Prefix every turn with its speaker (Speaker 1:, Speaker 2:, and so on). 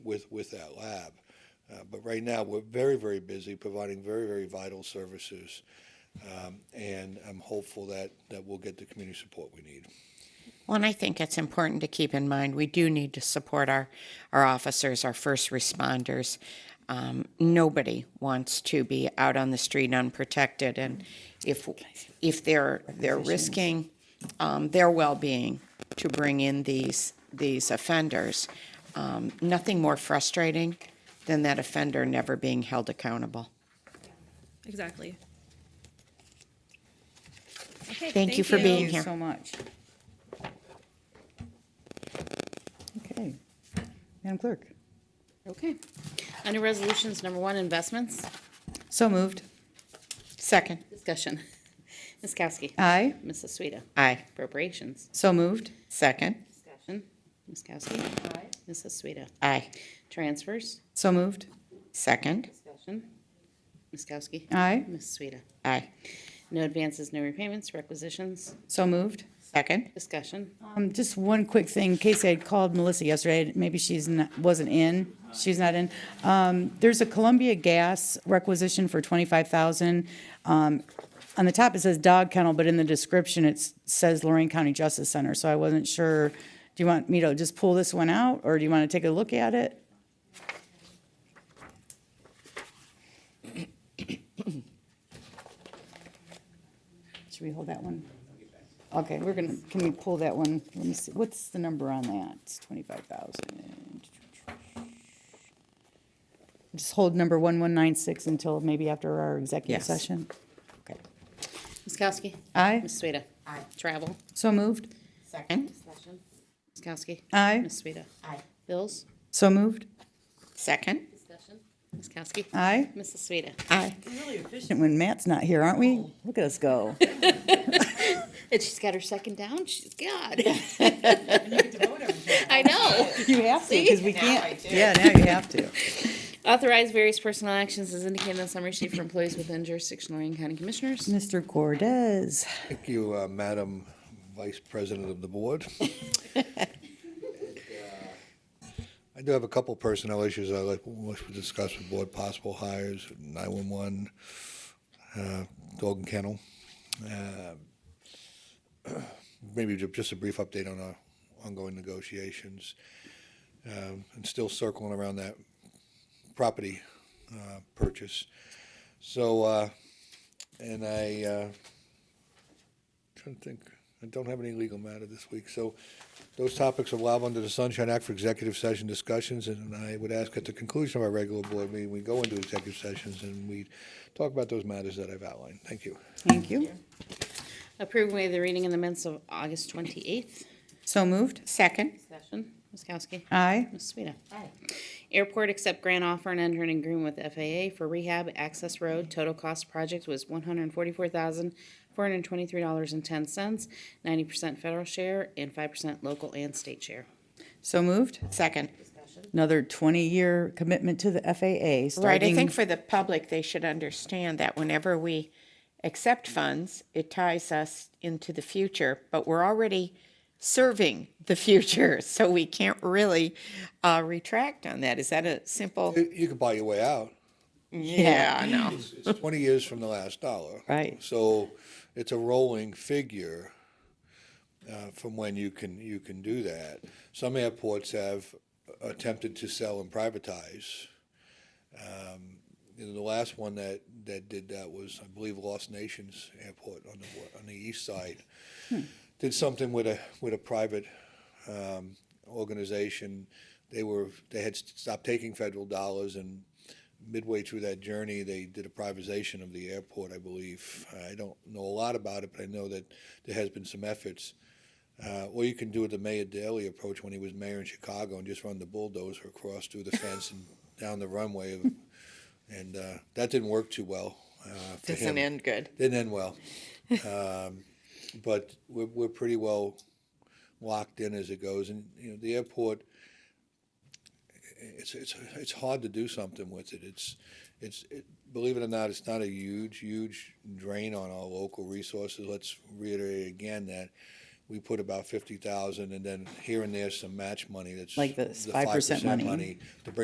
Speaker 1: with, with that lab. Uh, But right now, we're very, very busy providing very, very vital services. Um, And I'm hopeful that, that we'll get the community support we need.
Speaker 2: Well, and I think it's important to keep in mind we do need to support our, our officers, our first responders. Um, nobody wants to be out on the street unprotected, and if if they're they're risking um, their well-being to bring in these these offenders, um, nothing more frustrating than that offender never being held accountable.
Speaker 3: Exactly.
Speaker 2: Thank, you for being here.
Speaker 4: so much. Okay. Madam Clerk?
Speaker 5: Okay. Under Resolutions Number One, Investments,
Speaker 4: So moved.
Speaker 2: Second,
Speaker 5: Discussion. Ms. Kowski.
Speaker 4: Aye.
Speaker 5: Mrs. Sueda.
Speaker 2: aye.
Speaker 5: Appropriations.
Speaker 4: So moved.
Speaker 2: Second,
Speaker 5: Discussion. Ms. Kowski. Aye. Mrs. Sueda.
Speaker 2: aye.
Speaker 5: Transfers.
Speaker 4: So moved.
Speaker 2: Second,
Speaker 5: Discussion. Ms. Kowski.
Speaker 4: Aye.
Speaker 5: Ms. Sueda.
Speaker 2: aye.
Speaker 5: No advances, no repayments, requisitions.
Speaker 4: So moved.
Speaker 2: Second,
Speaker 5: Discussion.
Speaker 4: Um, just one quick thing. Casey had called Melissa yesterday. Maybe she's not, wasn't in. She's not in. Um, there's a Columbia Gas requisition for twenty-five thousand. Um, on the top it says dog kennel, but in the description it s- says Lorraine County Justice Center. So I wasn't sure. Do you want me to just pull this one out, or do you want to take a look at it? Should we hold that one? Okay, we're gonna, can we pull that one? Let me see, what's the number on that? It's twenty-five thousand. Just hold number one one nine six until maybe after our executive
Speaker 2: Yes.
Speaker 4: session? Okay.
Speaker 5: Ms. Kowski.
Speaker 4: Aye,
Speaker 5: Ms. Sueda. Aye. Travel.
Speaker 4: so moved.
Speaker 2: second,
Speaker 5: Discussion. Ms. Kowski.
Speaker 4: Aye,
Speaker 5: Ms. Sueda. Aye. Bills.
Speaker 4: so moved.
Speaker 2: second,
Speaker 5: Discussion. Ms. Kowski.
Speaker 4: Aye.
Speaker 5: Mrs. Sueda.
Speaker 2: aye.
Speaker 4: Efficient When Matt's not here, aren't we? Look at us go.
Speaker 5: And she's got her second down. She's God. I know.
Speaker 4: You have to, because we can't. Yeah, now you have to.
Speaker 5: Authorize various personal actions as indicated on the summary sheet for employees within jurisdiction of Lorraine County Commissioners.
Speaker 4: Mr. Cordez,
Speaker 1: Thank you, uh, Madam Vice President of the Board. uh, I do have a couple personnel issues I'd like, wish to discuss with board, possible hires, 911, uh, dog and kennel. Uh, Maybe ju- just a brief update on our ongoing negotiations. Um, And still circling around that property uh, purchase. So, uh, and I uh, Trying to think, I don't have any legal matter this week, so those topics are allowed under the Sunshine Act for executive session discussions, and I would ask at the conclusion of our regular board meeting, we go into executive sessions and we talk about those matters that I've outlined. Thank you.
Speaker 4: thank you.
Speaker 5: Approve way of the reading in the minutes of August twenty-eighth.
Speaker 4: So moved.
Speaker 2: Second,
Speaker 5: Discussion. Ms. Kowski.
Speaker 4: Aye,
Speaker 5: Ms. Sueda. Airport accept grant offer and enter an agreement with FAA for rehab access road. Total cost project was one hundred and forty-four thousand, four hundred and twenty-three dollars and ten cents, ninety percent federal share and five percent local and state share.
Speaker 4: so moved.
Speaker 2: second.
Speaker 4: Another twenty-year commitment to the FAA, starting.
Speaker 2: Right, I think for the public, they should understand that whenever we accept funds, it ties us into the future, but we're already serving the future, so we can't really uh, retract on that. Is that a simple?
Speaker 1: You you can buy your way out.
Speaker 2: Yeah, I know.
Speaker 1: It's it's twenty years from the last dollar.
Speaker 4: Right.
Speaker 1: So it's a rolling figure uh, from when you can, you can do that. Some airports have attempted to sell and privatize. Um, You know, the last one that, that did that was, I believe, Lost Nations Airport on the, wa- on the east side. Did something with a, with a private um, organization. They were, they had stopped taking federal dollars and midway through that journey, they did a privatization of the airport, I believe. I don't know a lot about it, but I know that there has been some efforts. Uh, Or you can do the Mayor Daley approach when he was mayor in Chicago and just run the bulldozer across through the fence and down the runway of and uh, that didn't work too well. Uh, for him.
Speaker 2: Doesn't end good.
Speaker 1: Didn't end well. um, but we're, we're pretty well locked in as it goes, and you know the airport. It's it's it's hard to do something with it. It's it's it, believe it or not, it's not a huge huge drain on our local resources. Let's reiterate again that. We put about fifty thousand, and then here and there some match money. That's
Speaker 4: Like this
Speaker 1: the
Speaker 4: 5% money.
Speaker 1: money to bring